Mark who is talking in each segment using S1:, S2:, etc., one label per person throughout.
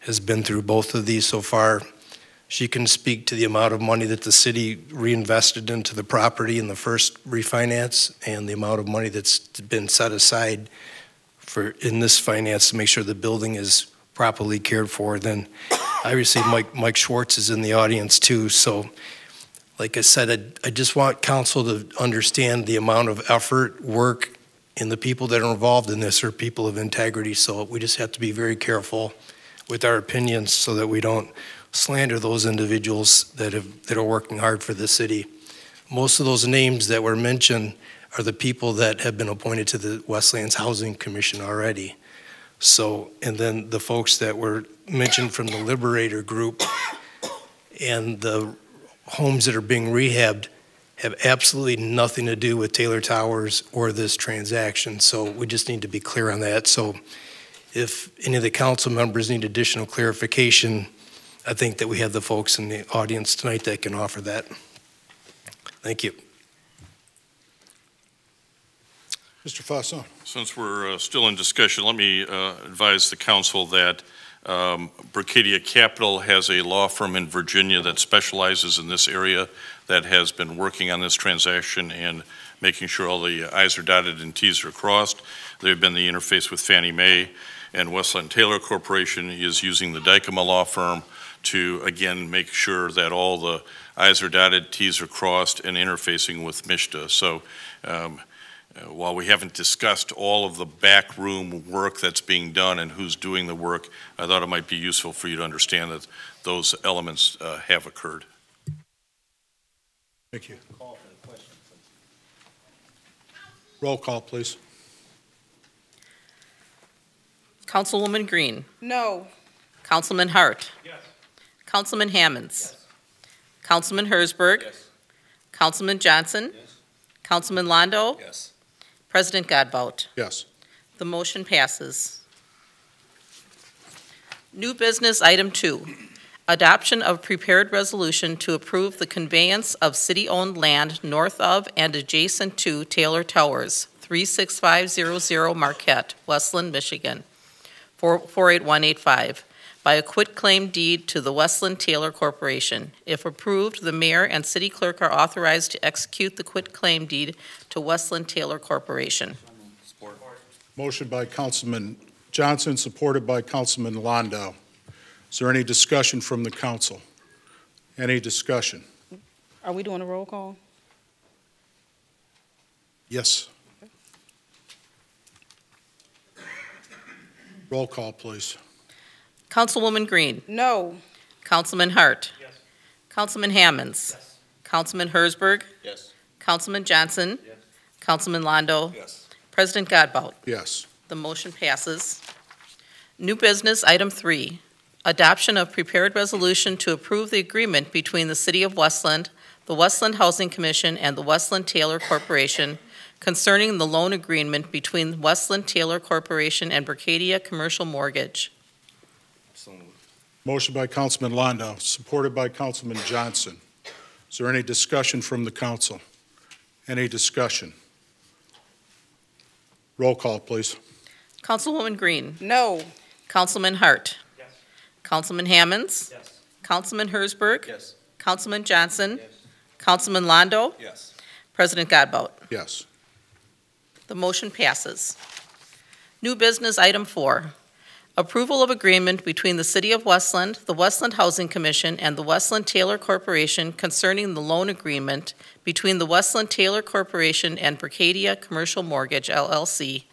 S1: has been through both of these so far. She can speak to the amount of money that the city reinvested into the property in the first refinance and the amount of money that's been set aside for, in this finance to make sure the building is properly cared for. Then obviously Mike, Mike Schwartz is in the audience too, so like I said, I, I just want council to understand the amount of effort, work, and the people that are involved in this are people of integrity, so we just have to be very careful with our opinions so that we don't slander those individuals that have, that are working hard for the city. Most of those names that were mentioned are the people that have been appointed to the Westlands Housing Commission already. So, and then the folks that were mentioned from the Liberator Group and the homes that are being rehabbed have absolutely nothing to do with Taylor Towers or this transaction. So we just need to be clear on that. So if any of the council members need additional clarification, I think that we have the folks in the audience tonight that can offer that. Thank you.
S2: Mr. Fasson.
S3: Since we're uh, still in discussion, let me uh, advise the council that um, Bracadia Capital has a law firm in Virginia that specializes in this area that has been working on this transaction and making sure all the i's are dotted and t's are crossed. They've been the interface with Fannie Mae, and Westland Taylor Corporation is using the Dykema Law Firm to, again, make sure that all the i's are dotted, t's are crossed, and interfacing with MISTA. So um, uh, While we haven't discussed all of the backroom work that's being done and who's doing the work, I thought it might be useful for you to understand that those elements uh, have occurred.
S2: Thank you. Roll call, please.
S4: Councilwoman Green.
S5: No.
S4: Councilman Hart. Yes. Councilman Hammonds. Councilman Hersberg. Yes. Councilman Johnson. Yes. Councilman Londo.
S6: Yes.
S4: President Godbout.
S2: Yes.
S4: The motion passes. New business item two, adoption of prepared resolution to approve the conveyance of city-owned land north of and adjacent to Taylor Towers, 36500 Marquette, Westland, Michigan, 48185, by a quitclaim deed to the Westland Taylor Corporation. If approved, the mayor and city clerk are authorized to execute the quitclaim deed to Westland Taylor Corporation.
S6: Support.
S2: Motion by Councilman Johnson, supported by Councilman Londo. Is there any discussion from the council? Any discussion?
S5: Are we doing a roll call?
S2: Yes. Roll call, please.
S4: Councilwoman Green.
S5: No.
S4: Councilman Hart. Yes. Councilman Hammonds. Yes. Councilman Hersberg.
S6: Yes.
S4: Councilman Johnson.
S6: Yes.
S4: Councilman Londo.
S6: Yes.
S4: President Godbout.
S2: Yes.
S4: The motion passes. New business, item three, adoption of prepared resolution to approve the agreement between the City of Westland, the Westland Housing Commission, and the Westland Taylor Corporation concerning the loan agreement between Westland Taylor Corporation and Bercadia Commercial Mortgage.
S6: So moved.
S2: Motion by Councilman Londo, supported by Councilman Johnson. Is there any discussion from the council? Any discussion? Roll call, please.
S4: Councilwoman Green.
S5: No.
S4: Councilman Hart.
S6: Yes.
S4: Councilman Hammonds.
S6: Yes.
S4: Councilman Hersberg.
S6: Yes.
S4: Councilman Johnson.
S6: Yes.
S4: Councilman Londo.
S6: Yes.
S4: President Godbout.
S2: Yes.
S4: The motion passes. New business, item four, approval of agreement between the City of Westland, the Westland Housing Commission, and the Westland Taylor Corporation concerning the loan agreement between the Westland Taylor Corporation and Bracadia Commercial Mortgage LLC.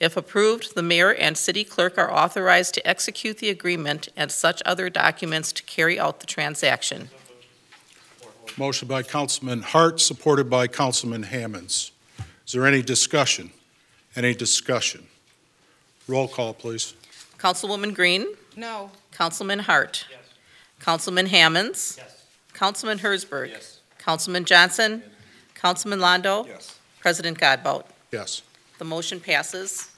S4: If approved, the mayor and city clerk are authorized to execute the agreement and such other documents to carry out the transaction.
S2: Motion by Councilman Hart, supported by Councilman Hammonds. Is there any discussion? Any discussion? Roll call, please.
S4: Councilwoman Green?
S5: No.
S4: Councilman Hart. Councilman Hammonds.
S6: Yes.
S4: Councilman Hersberg.
S6: Yes.
S4: Councilman Johnson. Councilman Londo.
S6: Yes.
S4: President Godbout.
S2: Yes.
S4: The motion passes.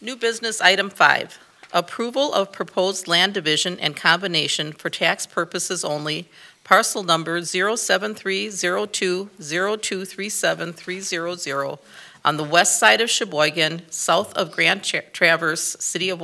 S4: New business item five, approval of proposed land division and combination for tax purposes only, parcel number 07302023730 on the west side of Sheboygan, south of Grand Tra- Traverse, City of